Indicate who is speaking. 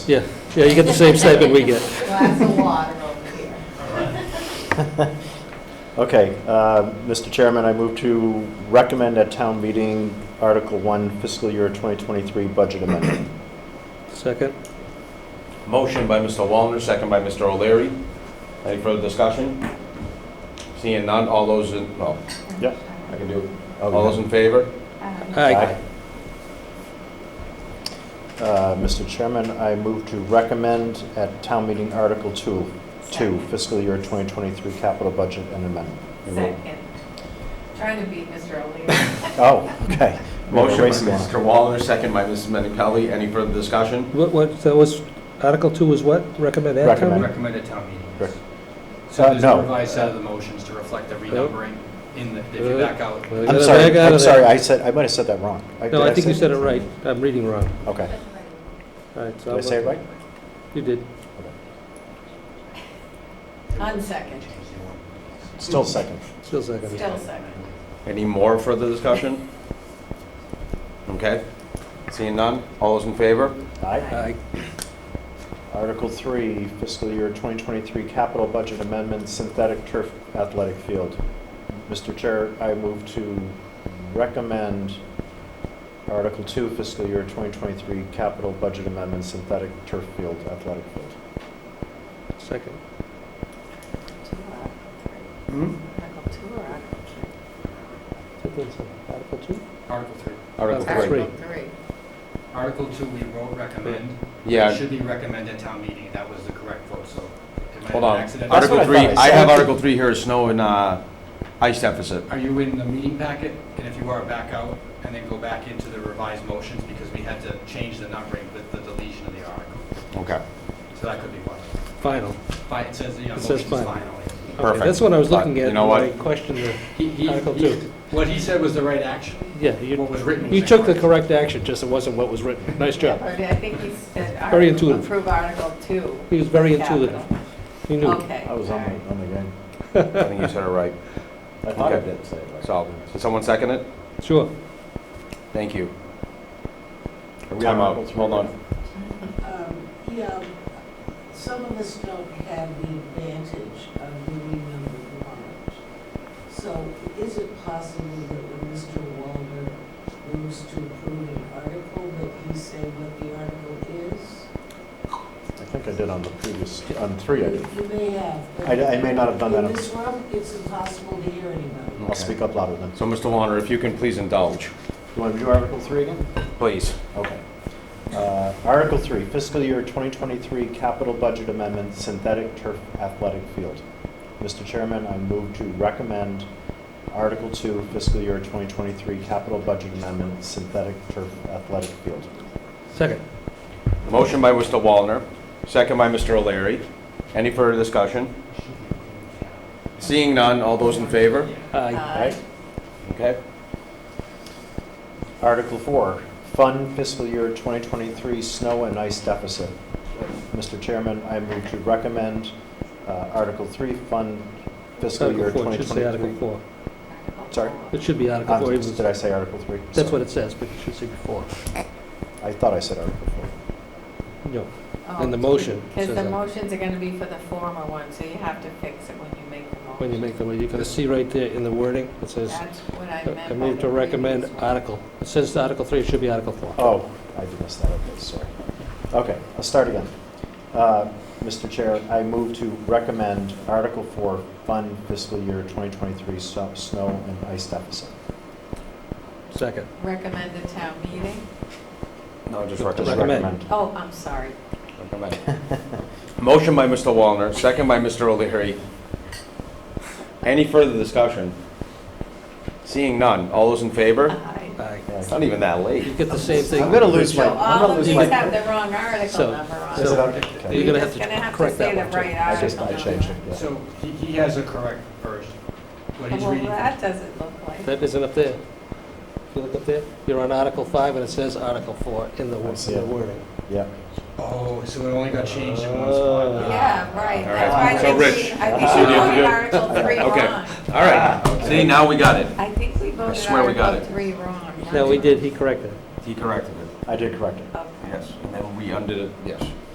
Speaker 1: Yeah, yeah, you get the same stipend we get.
Speaker 2: Glass of water over here.
Speaker 3: Okay, uh, Mr. Chairman, I move to recommend at town meeting Article 1 fiscal year 2023 budget amendment.
Speaker 1: Second?
Speaker 4: Motion by Mr. Wallner, second by Mr. O'Leary. Any further discussion? Seeing none, all those in, no,
Speaker 3: Yep.
Speaker 4: I Oh, can do it. All those in favor?
Speaker 2: Um,
Speaker 1: Aye.
Speaker 3: Uh, Mr. Chairman, I move to recommend at town meeting Article 2, 2 fiscal year 2023 capital budget and amendment.
Speaker 2: Second. Trying to beat Mr. O'Leary.
Speaker 3: Oh, okay.
Speaker 4: Motion by
Speaker 3: Racing along.
Speaker 4: Mr. Wallner, second by Mrs. Mennichelli. Any further discussion?
Speaker 1: What, what, that was, Article 2 was what? Recommend and town
Speaker 3: Recommend.
Speaker 1: meeting?
Speaker 5: Recommend at town meeting. yes.
Speaker 3: Correct.
Speaker 5: So
Speaker 3: Uh,
Speaker 5: there's
Speaker 3: no.
Speaker 5: a revised set of the motions to reflect the renumbering in the, if you
Speaker 1: Uh,
Speaker 5: back out.
Speaker 1: Well,
Speaker 3: I'm
Speaker 1: gotta back
Speaker 3: sorry,
Speaker 1: out
Speaker 3: I'm
Speaker 1: of that.
Speaker 3: sorry, I said, I might have said that wrong.
Speaker 1: No,
Speaker 3: did
Speaker 1: I think you
Speaker 3: say-
Speaker 1: said it right. I'm reading wrong.
Speaker 3: Okay,
Speaker 1: All right, so
Speaker 3: did I say it right?
Speaker 1: You did.
Speaker 2: Unsecond,
Speaker 3: Still second.
Speaker 1: Still second.
Speaker 2: still second.
Speaker 4: Any more further discussion? Okay. Seeing none, all those in favor?
Speaker 3: Aye.
Speaker 1: Aye.
Speaker 3: Article 3 fiscal year 2023 capital budget amendment, synthetic turf athletic field. Mr. Chair, I move to recommend Article 2 fiscal year 2023 capital budget amendment, synthetic turf field athletic field.
Speaker 1: Second.
Speaker 2: Two or three?
Speaker 3: Hmm?
Speaker 2: Article two
Speaker 1: Article 2?
Speaker 2: or Article three?
Speaker 5: Article three.
Speaker 4: Article
Speaker 1: Article
Speaker 4: three.
Speaker 2: Article three.
Speaker 5: Article two, we wrote recommend. It
Speaker 4: Yeah,
Speaker 5: should be recommend at town meeting. That was the correct vote, so. it might have
Speaker 4: hold
Speaker 5: been
Speaker 4: on.
Speaker 5: accidental.
Speaker 3: That's what
Speaker 4: Article
Speaker 3: I
Speaker 4: three,
Speaker 3: thought I
Speaker 4: I have
Speaker 3: said.
Speaker 4: Article three here, snow and uh, ice deficit.
Speaker 5: Are you in the meeting packet? And if you are, back out and then go back into the revised motions because we had to change the numbering with the deletion of the article.
Speaker 4: Okay.
Speaker 5: So that could be one.
Speaker 1: Final.
Speaker 5: Fi- It says, uh, you know,
Speaker 1: It says
Speaker 5: motions
Speaker 1: final.
Speaker 5: finally.
Speaker 1: Okay,
Speaker 4: Perfect.
Speaker 1: That's what I was
Speaker 4: But
Speaker 1: looking at.
Speaker 4: you know
Speaker 1: when
Speaker 4: what?
Speaker 1: I questioned the,
Speaker 5: He- he-
Speaker 1: Article
Speaker 5: he-
Speaker 1: two.
Speaker 5: What he said was the right action.
Speaker 1: yeah, you,
Speaker 5: What was written. was
Speaker 1: you took the
Speaker 5: incorrect.
Speaker 1: correct action, just it wasn't what was written. Nice job.
Speaker 2: But I think he said.
Speaker 1: Very
Speaker 2: article-
Speaker 1: intuitive.
Speaker 2: Approve Article two.
Speaker 1: He was very intuitive.
Speaker 2: Capital.
Speaker 1: He knew.
Speaker 2: Okay.
Speaker 3: I was on
Speaker 2: all right.
Speaker 3: the, on the game.
Speaker 4: I think you said it right.
Speaker 3: I thought I
Speaker 4: Okay.
Speaker 3: did say it right.
Speaker 4: So, did someone second it?
Speaker 1: Sure.
Speaker 4: Thank you.
Speaker 3: on
Speaker 4: Time out,
Speaker 3: Article three?
Speaker 4: hold on.
Speaker 6: Um, Yeah, some of us don't have the advantage of doing number warrant. So is it possible that when Mr. Walner moves to approve an article, that he say what the article is?
Speaker 3: I think I did on the previous, on 3, I did.
Speaker 6: You may have. but
Speaker 3: I, I may not have done that.
Speaker 6: In
Speaker 3: I'm-
Speaker 6: this room, it's impossible to hear anybody.
Speaker 3: I'll speak up louder then.
Speaker 4: So, Mr. Wallner, if you can please indulge,
Speaker 3: You want to do Article 3 again?
Speaker 4: please.
Speaker 3: Okay. Uh, Article 3, fiscal year 2023 capital budget amendment, synthetic turf athletic field. Mr. Chairman, I move to recommend Article 2, fiscal year 2023 capital budget amendment, synthetic turf athletic field.
Speaker 1: Second.
Speaker 4: Motion by Mr. Wallner, second by Mr. O'Leary. Any further discussion? Seeing none, all those in favor?
Speaker 1: Aye.
Speaker 3: Right?
Speaker 4: Okay.
Speaker 3: Article 4, fund fiscal year 2023 snow and ice deficit. Mr. Chairman, I move to recommend uh, Article 3, fund fiscal year
Speaker 1: Article 4, it should say Article
Speaker 3: 2023.
Speaker 1: 4.
Speaker 2: Article
Speaker 3: Sorry?
Speaker 2: four.
Speaker 1: It should be Article
Speaker 3: Um,
Speaker 1: 4. even-
Speaker 3: Did I say Article 3?
Speaker 1: That's what it says, but it should say before.
Speaker 3: I thought I said Article 4.
Speaker 1: No.
Speaker 2: Oh,
Speaker 1: And the motion says
Speaker 2: Because the
Speaker 1: that.
Speaker 2: motions are going to be for the former one, so you have to fix it when you make the motion.
Speaker 1: When you make the, you can see right there in the wording, it says,
Speaker 2: That's what I meant.
Speaker 1: I
Speaker 2: by
Speaker 1: move
Speaker 2: the
Speaker 1: to recommend
Speaker 2: previous one.
Speaker 1: article. It says Article 3, it should be Article 4.
Speaker 3: Oh, I did miss that, okay, sorry. Okay, I'll start again. Uh, Mr. Chair, I move to recommend Article 4, Fund Fiscal Year 2023 so- Snow and Ice Deficit.
Speaker 1: Second.
Speaker 2: Recommend the town meeting.
Speaker 4: No, just
Speaker 3: Just
Speaker 4: recommend.
Speaker 1: recommend.
Speaker 2: Oh, I'm sorry.
Speaker 4: Recommend. Motion by Mr. Wallner, second by Mr. O'Leary. Any further discussion? Seeing none, all those in favor?
Speaker 2: Aye.
Speaker 1: Aye.
Speaker 3: Yeah.
Speaker 4: It's not even that
Speaker 1: You
Speaker 4: late.
Speaker 1: get the same thing.
Speaker 3: I'm gonna lose my,
Speaker 2: So
Speaker 3: I'm
Speaker 2: all
Speaker 3: gonna
Speaker 2: of
Speaker 3: lose
Speaker 2: these
Speaker 3: my.
Speaker 2: have the wrong article
Speaker 1: So-
Speaker 2: number on
Speaker 3: Is it
Speaker 2: it.
Speaker 3: out? Okay.
Speaker 1: You're
Speaker 2: You're
Speaker 1: gonna have
Speaker 2: just
Speaker 1: to
Speaker 2: going to have to
Speaker 1: correct
Speaker 2: say
Speaker 1: that
Speaker 2: the
Speaker 1: one, too.
Speaker 2: right
Speaker 3: I just,
Speaker 2: article
Speaker 3: I
Speaker 2: number.
Speaker 3: changed it, yeah.
Speaker 5: So he, he has a correct version, what he's
Speaker 2: Well,
Speaker 5: reading.
Speaker 2: that doesn't look like.
Speaker 1: That isn't up there. If you look up there, you're on Article 5, and it says Article 4 in the
Speaker 3: I
Speaker 1: wo-
Speaker 3: see
Speaker 1: in the
Speaker 3: it.
Speaker 1: wording.
Speaker 3: Yeah,
Speaker 5: Oh, so it only got changed in one
Speaker 1: Ah.
Speaker 5: spot.
Speaker 2: Yeah, right.
Speaker 4: All
Speaker 2: That's
Speaker 4: right.
Speaker 2: why I
Speaker 4: So,
Speaker 2: think
Speaker 4: Rich,
Speaker 2: we,
Speaker 3: you
Speaker 2: I think
Speaker 3: see what you
Speaker 2: we
Speaker 3: have to
Speaker 2: voted
Speaker 4: do?
Speaker 2: Article three
Speaker 4: Okay.
Speaker 2: wrong.
Speaker 4: All right, see, now we got it.
Speaker 2: I think we voted
Speaker 4: swear we got
Speaker 2: Article
Speaker 4: it.
Speaker 2: three wrong.
Speaker 1: No, we did, he corrected it.
Speaker 4: He corrected it.
Speaker 3: I did correct it.
Speaker 2: Okay.
Speaker 4: Yes, and then we undid it, yes.